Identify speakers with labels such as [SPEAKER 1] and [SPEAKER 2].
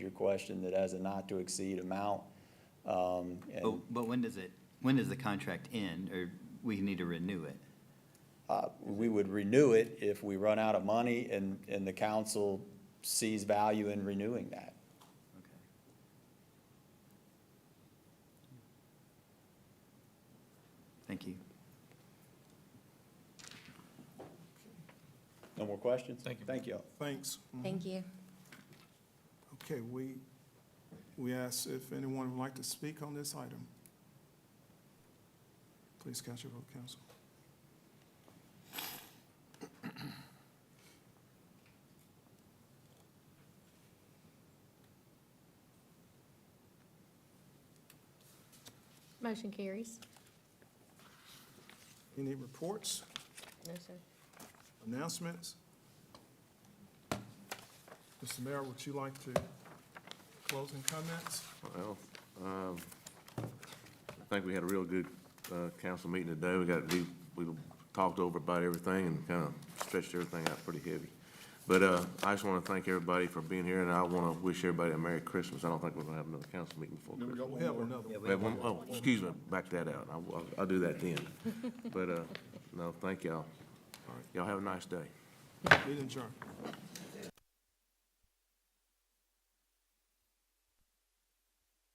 [SPEAKER 1] question that has a not to exceed amount. Um,
[SPEAKER 2] But,
[SPEAKER 1] and
[SPEAKER 2] but when does it, when does the contract end, or we need to renew it?
[SPEAKER 1] uh, we would renew it if we run out of money and, and the council sees value in renewing that.
[SPEAKER 2] Thank you.
[SPEAKER 1] No more questions?
[SPEAKER 3] Thank you.
[SPEAKER 1] Thank you. all.
[SPEAKER 4] Thanks.
[SPEAKER 5] Thank you.
[SPEAKER 4] Mm-hmm. Okay, we, we ask if anyone would like to speak on this item. Please cast your vote, council.
[SPEAKER 6] Motion carries.
[SPEAKER 4] Any reports,
[SPEAKER 6] No, sir.
[SPEAKER 4] announcements? Mr. Mayor, would you like to closing comments?
[SPEAKER 7] Well, um, I think we had a real good, uh, council meeting today. We got, we, we talked over about everything and kind of stretched everything out pretty heavy. But, uh, I just want to thank everybody for being here, and I want to wish everybody a Merry Christmas. I don't think we're going to have another council meeting before Christmas.
[SPEAKER 4] We'll have another one.
[SPEAKER 7] We have one- Oh, excuse me, back that out. I'll, I'll- I'll do that then. But, uh, no, thank y'all. Y'all have a nice day.
[SPEAKER 4] Meeting adjourned.